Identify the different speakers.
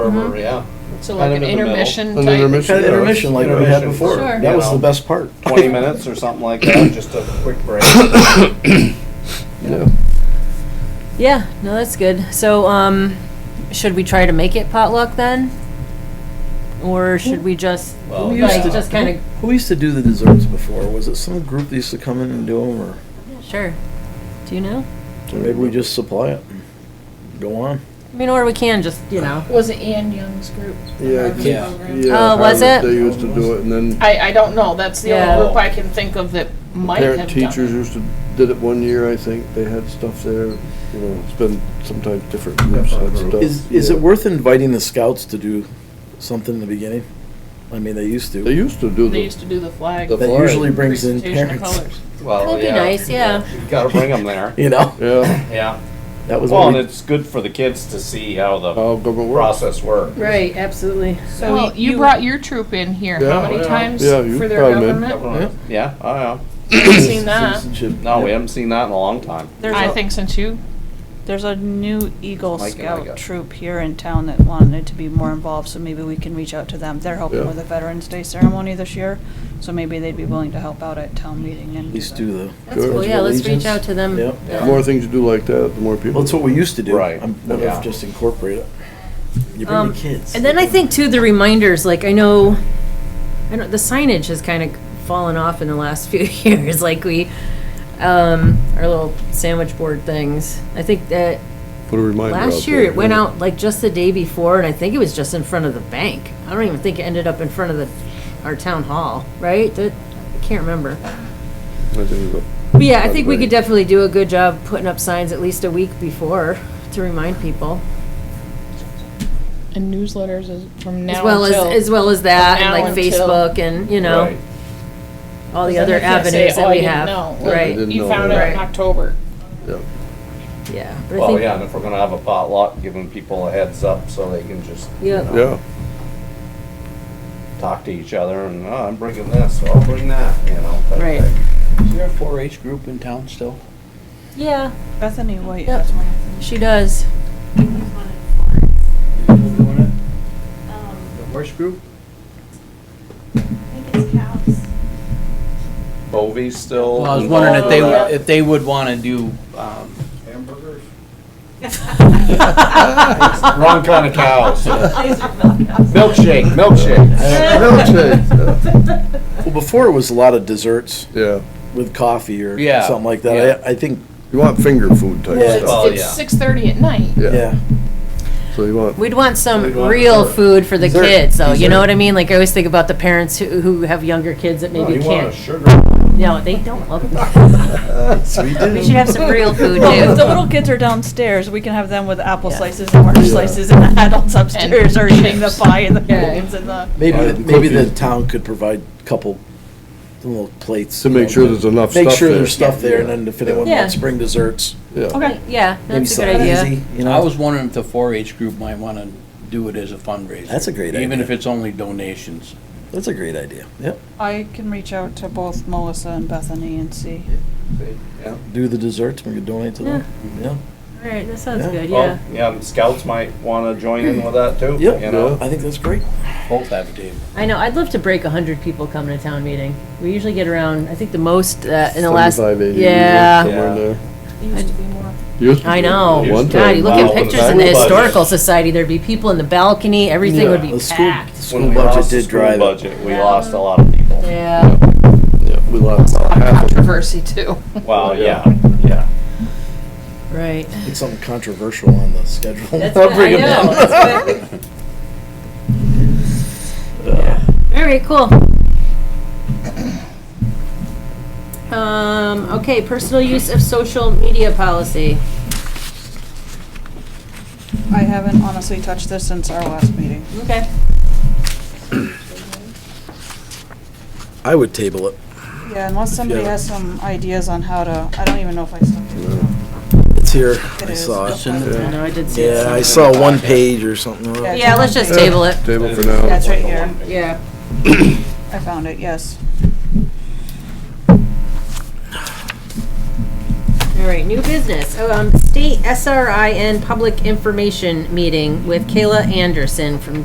Speaker 1: Or, yeah,
Speaker 2: So
Speaker 1: Kind
Speaker 2: like an
Speaker 1: of in the middle.
Speaker 2: intermission type?
Speaker 3: An intermission.
Speaker 4: Kind of intermission like we had
Speaker 3: Intermission.
Speaker 4: before.
Speaker 2: Sure.
Speaker 4: That was
Speaker 1: You
Speaker 4: the
Speaker 1: know.
Speaker 4: best part.
Speaker 1: twenty minutes or something like that, just a quick break.
Speaker 3: Yeah.
Speaker 5: Yeah, no, that's good. So, um, should we try to make it potluck then? Or should we just,
Speaker 1: Well,
Speaker 4: We
Speaker 5: like,
Speaker 4: used to-
Speaker 5: just kind of,
Speaker 4: Who used to do the desserts before? Was it some group that used to come in and do them, or
Speaker 5: sure. Do you know?
Speaker 4: or maybe we just supply it? and Go on.
Speaker 5: I mean, or we can just, you know.
Speaker 2: Was it Ann Young's group?
Speaker 3: Yeah,
Speaker 2: Harvard
Speaker 1: yeah.
Speaker 2: program?
Speaker 3: Yeah,
Speaker 5: Oh, was
Speaker 3: Harvard,
Speaker 5: it?
Speaker 3: They used to do it, and then
Speaker 2: I, I don't know, that's the
Speaker 5: Yeah.
Speaker 2: only group I can think of that might have done.
Speaker 3: parent teachers
Speaker 2: it.
Speaker 3: used to, did it one year, I think. They had stuff there, you know, it's been sometimes different groups had stuff.
Speaker 4: Is is
Speaker 3: yeah.
Speaker 4: it worth inviting the scouts to do something in the beginning? I mean, they used
Speaker 3: They
Speaker 4: to.
Speaker 3: used to do
Speaker 2: They
Speaker 3: the,
Speaker 2: used to do the flag.
Speaker 3: The
Speaker 4: That usually brings in
Speaker 2: presentation of
Speaker 4: parents.
Speaker 2: colors.
Speaker 1: Well,
Speaker 5: That'd be
Speaker 1: yeah.
Speaker 5: nice, yeah.
Speaker 1: You gotta bring them there,
Speaker 4: You know,
Speaker 3: yeah,
Speaker 1: yeah.
Speaker 4: that was
Speaker 1: Well,
Speaker 4: what
Speaker 1: and
Speaker 4: we, Oh.
Speaker 1: it's good for the kids to see how the
Speaker 3: how government works.
Speaker 1: process works.
Speaker 5: Right, absolutely.
Speaker 2: So you brought your troop in here, how
Speaker 3: Yeah.
Speaker 2: many
Speaker 1: Yeah.
Speaker 2: times
Speaker 3: Yeah, you
Speaker 2: for their
Speaker 3: brought 'em in.
Speaker 2: government?
Speaker 1: Yeah, oh, yeah.
Speaker 2: I've seen that,
Speaker 4: Citizenship.
Speaker 1: No, we haven't seen that in a long time.
Speaker 6: There's
Speaker 2: I
Speaker 6: a,
Speaker 2: think since you,
Speaker 6: there's a new Eagle
Speaker 1: Mike and I got-
Speaker 6: Scout troop here in town that wanted to be more involved, so maybe we can reach out to them. They're helping
Speaker 3: Yeah.
Speaker 6: with the Veterans Day ceremony this year, so maybe they'd be willing to help out at town meeting and.
Speaker 4: At least do the.
Speaker 5: That's cool, yeah, let's reach out to them.
Speaker 4: Yeah.
Speaker 1: Yeah.
Speaker 3: The more things you do like that, the more people.
Speaker 4: Well, that's what we used to do.
Speaker 1: Right,
Speaker 4: I'm, what if
Speaker 1: yeah.
Speaker 4: just incorporate it? You bring
Speaker 5: Um,
Speaker 4: the kids.
Speaker 5: And then I think too, the reminders, like I know, I know the signage has kind of fallen off in the last few years, like we, um, our little sandwich board things. I think that
Speaker 3: Put a reminder out
Speaker 5: Last year,
Speaker 3: there,
Speaker 5: it went
Speaker 3: yeah.
Speaker 5: out like just the day before, and I think it was just in front of the bank. I don't even think it ended up in front of the, our town hall, right? That, I can't remember.
Speaker 3: I think it
Speaker 5: But yeah, I think we
Speaker 3: Probably.
Speaker 5: could definitely do a good job putting up signs at least a week before to remind people.
Speaker 2: and newsletters is from now
Speaker 5: As well as,
Speaker 2: until.
Speaker 5: as well as that, and
Speaker 2: now
Speaker 5: like
Speaker 2: until-
Speaker 5: Facebook and, you know,
Speaker 1: Right.
Speaker 5: all the
Speaker 2: Then
Speaker 5: other
Speaker 2: they can't say,
Speaker 5: avenues
Speaker 2: "Oh,
Speaker 5: that
Speaker 2: I
Speaker 5: we
Speaker 2: didn't
Speaker 5: have.
Speaker 2: know."
Speaker 5: Right,
Speaker 3: Didn't
Speaker 2: You
Speaker 3: know
Speaker 2: found out
Speaker 3: that.
Speaker 2: in October.
Speaker 3: was, yeah.
Speaker 5: yeah. But I
Speaker 1: Well,
Speaker 5: think-
Speaker 1: yeah, and if we're gonna have a potluck, giving people a heads up so they can just, you
Speaker 5: Yeah.
Speaker 1: know,
Speaker 4: Oh.
Speaker 3: Yeah,
Speaker 1: talk to each other and, oh, I'm bringing this, so I'll bring that, you know. type
Speaker 5: Right.
Speaker 1: thing.
Speaker 7: Is there a 4-H group in town still?
Speaker 5: Yeah,
Speaker 6: Bethany White
Speaker 5: Yep.
Speaker 6: has one.
Speaker 5: she does.
Speaker 7: Is it doing it?
Speaker 8: Um,
Speaker 7: The horse group?
Speaker 8: I think it's cows.
Speaker 1: Bovies still.
Speaker 7: Well, I was wondering if they,
Speaker 1: involved
Speaker 7: would-
Speaker 1: in
Speaker 7: if they would want to do, um,
Speaker 1: Hamburgers? Wrong kind of cows. Milkshake, milkshake.
Speaker 3: Milkshake,
Speaker 4: Well, before it was a lot of desserts
Speaker 3: yeah, yeah.
Speaker 4: with coffee or
Speaker 7: Yeah,
Speaker 4: something like
Speaker 1: yeah.
Speaker 4: that. I, I think,
Speaker 3: You want finger food type
Speaker 4: Yeah.
Speaker 3: stuff,
Speaker 1: Oh,
Speaker 2: It's,
Speaker 1: yeah.
Speaker 2: it's six thirty at night.
Speaker 3: yeah,
Speaker 4: yeah.
Speaker 3: so you want.
Speaker 5: We'd want some
Speaker 3: We'd want
Speaker 5: real
Speaker 3: dessert.
Speaker 5: food for the
Speaker 4: Dessert.
Speaker 5: kids, though. You know
Speaker 4: Dessert.
Speaker 5: what I mean? Like I always think about the parents who, who have younger kids that
Speaker 1: No,
Speaker 5: maybe
Speaker 1: Oh, you want a
Speaker 5: can't.
Speaker 1: sugar.
Speaker 5: No, they don't love it. we should have some real food
Speaker 6: Well, if the
Speaker 5: too.
Speaker 6: little kids are downstairs, we can have them with apple
Speaker 5: Yeah.
Speaker 6: slices and orange
Speaker 3: Yeah.
Speaker 6: slices, and the adults upstairs are eating the
Speaker 2: chips.
Speaker 6: pie and the
Speaker 5: Yeah.
Speaker 6: balloons and the.
Speaker 4: Maybe,
Speaker 3: Buy
Speaker 4: the-
Speaker 3: the
Speaker 4: maybe the
Speaker 3: cookies.
Speaker 4: town could provide a couple, some little plates.
Speaker 3: To make sure there's enough
Speaker 4: Make
Speaker 3: stuff
Speaker 4: sure
Speaker 3: there.
Speaker 4: there's stuff there, and then if anyone
Speaker 5: Yeah.
Speaker 4: wants, bring desserts.
Speaker 3: Yeah,
Speaker 5: Yeah,
Speaker 4: Maybe
Speaker 5: that's a
Speaker 4: something
Speaker 5: good idea.
Speaker 4: easy, You
Speaker 7: I
Speaker 4: know,
Speaker 7: was wondering if the 4-H group might want to do it as a fundraiser.
Speaker 4: That's a great
Speaker 7: Even
Speaker 4: idea.
Speaker 7: if it's only donations.
Speaker 4: that's a great idea. Yep,
Speaker 6: I can reach out to both Melissa and Bethany and see.
Speaker 1: Yeah.
Speaker 4: do the desserts, we could donate to them. Yeah,
Speaker 5: All right, that sounds
Speaker 4: Yeah.
Speaker 5: good,
Speaker 1: Well,
Speaker 5: yeah.
Speaker 1: Oh, yeah, scouts might wanna join in with that too, you
Speaker 4: yeah,
Speaker 1: know?
Speaker 4: I think that's great.
Speaker 7: Both have a table.
Speaker 5: I know, I'd love to break a hundred people coming to town meeting. We usually get around, I think the most, uh, in the last,
Speaker 3: 75, 80,
Speaker 5: yeah.
Speaker 3: somewhere in there.
Speaker 2: It used to be more.
Speaker 3: Used to
Speaker 5: I
Speaker 3: be
Speaker 5: know.
Speaker 3: one
Speaker 5: God,
Speaker 3: time.
Speaker 5: you look at
Speaker 1: Wow,
Speaker 5: pictures in the
Speaker 1: budget.
Speaker 5: historical society, there'd be people in the balcony, everything would
Speaker 4: The
Speaker 5: be
Speaker 4: school-
Speaker 5: packed.
Speaker 4: the
Speaker 1: When we
Speaker 4: School
Speaker 1: lost
Speaker 4: budget
Speaker 1: the
Speaker 4: did
Speaker 1: school
Speaker 4: drive it.
Speaker 1: budget, we lost a lot of people.
Speaker 5: Yeah,
Speaker 3: Yeah, we lost about half of them.
Speaker 2: Controversy too.
Speaker 1: Well, yeah,
Speaker 3: Yeah.
Speaker 1: yeah.
Speaker 5: right.
Speaker 4: It's something controversial on the schedule.
Speaker 5: That's
Speaker 4: I'll
Speaker 5: good,
Speaker 4: bring
Speaker 5: I
Speaker 4: it
Speaker 5: know,
Speaker 4: down.
Speaker 5: that's good. All right, cool. Um, okay, personal use of social media policy.
Speaker 6: I haven't honestly touched this since our last meeting.
Speaker 5: Okay.
Speaker 4: I would table it.
Speaker 6: Yeah, unless somebody
Speaker 4: Yeah.
Speaker 6: has some ideas on how to, I don't even know if I still do.
Speaker 4: It's here,
Speaker 6: It
Speaker 4: I
Speaker 6: is.
Speaker 4: saw
Speaker 6: It's
Speaker 4: it.
Speaker 6: in the-
Speaker 5: I know, I did see it.
Speaker 4: Yeah, I saw one page or something.
Speaker 6: Yeah.
Speaker 5: Yeah, let's just table it.
Speaker 3: Table for
Speaker 6: Yeah,
Speaker 3: now.
Speaker 6: it's right here.
Speaker 5: Yeah.
Speaker 6: I found it, yes.
Speaker 5: All All right, new business. Oh, um, state SRIN public information meeting with Kayla Anderson from